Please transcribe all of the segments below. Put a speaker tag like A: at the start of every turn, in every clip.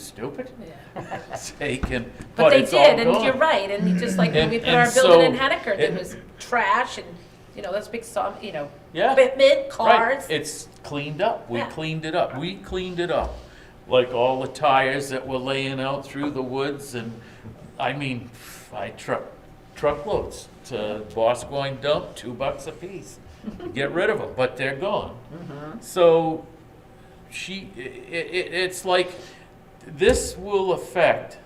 A: stupid?
B: Yeah.
A: Sake and,
B: But
A: but
B: they
A: it's all
B: did, and you're
A: gone.
B: right, and just like when
A: And-
B: we put
A: and
B: our building in
A: so-
B: Hennecker,
A: it-
B: that was trash and, you know, that's big sum, you know,
A: Yeah.
B: equipment, cars.
A: Right, it's cleaned up, we
B: Yeah.
A: cleaned it up, we cleaned it up. Like all the tires that were laying out through the woods and, I mean, I truck, truckloads to Boscoin dump, two bucks a piece. Get rid of them, but they're gone.
B: Mm-hmm.
A: So she, i it, it's like, this will affect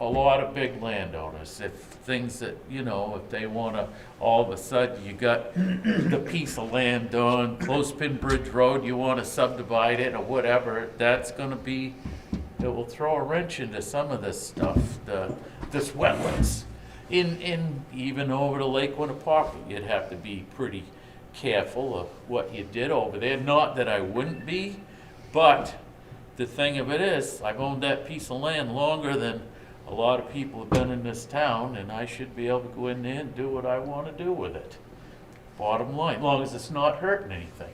A: a lot of big landowners if things that, you know, if they wanna, all of a sudden, you got the piece of land on Clothespin Bridge Road, you wanna subdivide it or whatever, that's gonna be, it will throw a wrench into some of this stuff, the, this wetlands. In, in, even over to Lake Winnipesaukee, you'd have to be pretty careful of what you did over there. Not that I wouldn't be, but the thing of it is, I've owned that piece of land longer than a lot of people have been in this town, and I should be able to go in there and do what I wanna do with it. Bottom line, long as it's not hurting anything.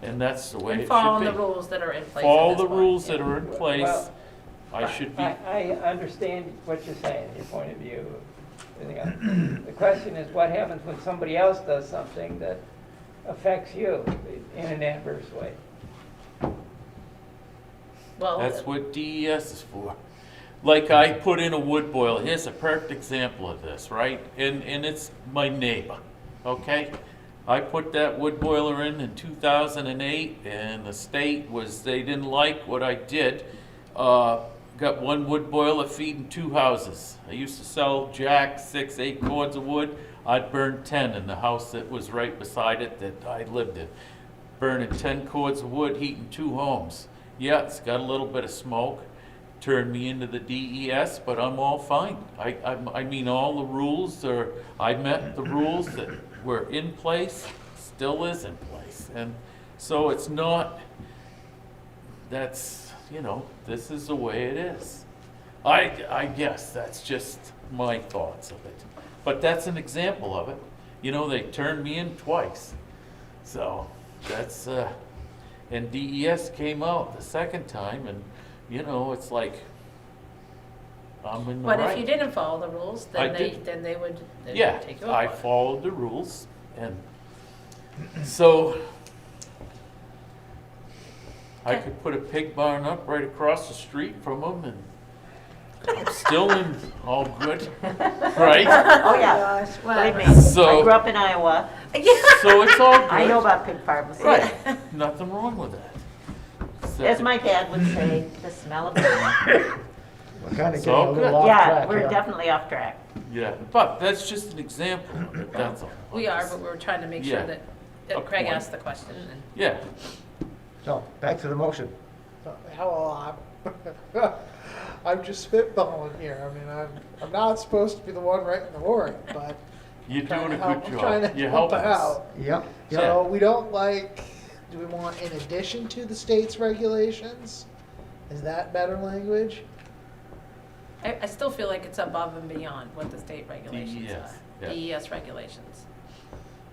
A: And that's the way it should
B: And
A: be.
B: following the rules that are in place. at
A: Follow
B: this
A: the
B: point,
A: rules
B: yeah.
A: that are in place.
C: Well-
A: I should be,
C: I, I understand what you're saying, your point of view. everything else. The question is, what happens when somebody else does something that affects you in an adverse way?
B: Well, uh,
A: that's what DES is for. Like I put in a wood boil, here's a perfect example of this, right? And, and it's my neighbor, okay? I put that wood boiler in in two thousand and eight, and the state was, they didn't like what I did. Uh, got one wood boiler feeding two houses. I used to sell jack, six, eight cords of wood. I'd burn ten in the house that was right beside it that I lived in. burning 10 cords of wood, heating two homes. Yeah, it's got a little bit of smoke, turned me into the DES, but I'm all fine. I, I'm- I mean, all the rules are, I met the rules that were in place, still is in place. And so it's not, that's, you know, this is the way it is. I, I guess that's just my thoughts of it. But that's an example of it. You know, they turned me in twice. So that's, uh, and DES came out the second time and, you know, it's like, I'm in the
B: But if
A: right.
B: you didn't follow the rules,
A: I
B: then they,
A: did.
B: then they would, they
A: Yeah,
B: would take you up
A: I
B: on it.
A: followed the rules and, so, I
B: Okay.
A: could put a pig barn up right across the street from them and I'm still in, all good, right?
D: Oh, yeah. Believe me. I grew
A: So,
D: up in Iowa.
A: so it's all good.
D: I know about pig farms.
A: Right, nothing wrong with that.
D: As my dad would say, the smell of it.
E: We're kind
A: So
E: of getting a
A: good.
E: little off
D: Yeah,
E: track
D: we're
E: here.
D: definitely off track.
A: Yeah, but that's just an example of it, that's all.
B: We are, but we're trying to make sure
A: Yeah.
B: that, that
A: Up
B: Craig
A: one.
B: asked the question and.
A: Yeah,
E: So, back to the motion.
F: Hello, I'm, I'm just spitballing here. I mean, I'm, I'm not supposed to be the one writing the warrant, but.
A: you're doing
F: trying
A: a
F: to help-
A: good
F: I'm trying
A: job,
F: to
A: you're
F: help
A: helping us.
F: out.
E: Yep, yep.
F: So we don't like, do we want in addition to the state's regulations? Is that better language?
B: I, I still feel like it's above and beyond what the state regulations
A: DES, yeah.
B: are, DES regulations.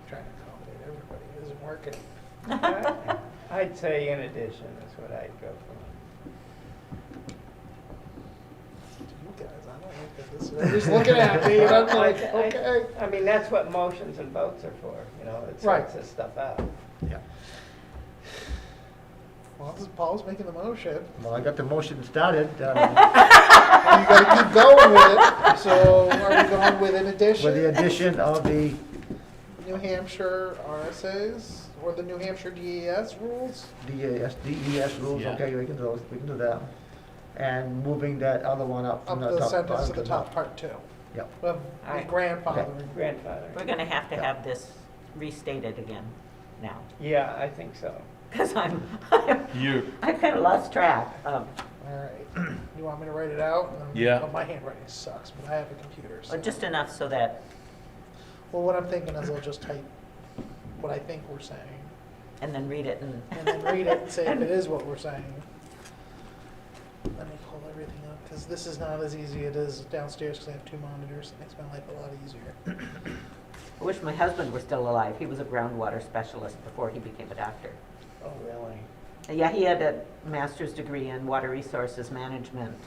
F: Trying to accommodate everybody, it isn't
C: I-
F: working.
C: I'd say in addition is what I'd go for.
F: You guys, I don't like that this, they're just looking at me, and I'm like,
C: I- I-
F: okay.
C: I mean, that's what motions and votes are for, you know, it
F: Right.
C: sorts this stuff out.
E: Yeah.
F: Well, this is- Paul's making the motion.
E: Well, I got the motion started, um,
F: You gotta keep going with it, so are we going with in addition?
E: with the addition of the,
F: New Hampshire RSAs or the New Hampshire DES rules.
E: DES, DES E, rules,
A: Yeah.
E: okay, we can do those, we can do that. And moving that other one up
F: Up
E: from the
F: the
E: top.
F: sentence
E: bottom
F: to the top, part two.
E: Yep.
F: Of
C: Alright.
F: grandfathering.
C: Grandfather.
D: We're gonna have to
E: Yeah.
D: have this restated again now,
C: Yeah, I think so.
D: because I'm, I'm-
A: You,
D: I've kind of lost track of,
F: Alright, you want me to write it out? And-
A: Yeah.
F: well, My handwriting sucks, but I have a computer, so.
D: or just enough so that,
F: Well, what I'm thinking is I'll just type what I think we're saying
D: and then read it and.
F: and then read it and say if it is what we're saying. Let me pull everything up, cause this is not as easy as it is downstairs, cause I have two monitors, it makes my life a lot easier.
D: I wish my husband were still alive. He was a groundwater specialist before he became a doctor.
C: Oh, really?
D: Yeah, he had a master's degree in water resources management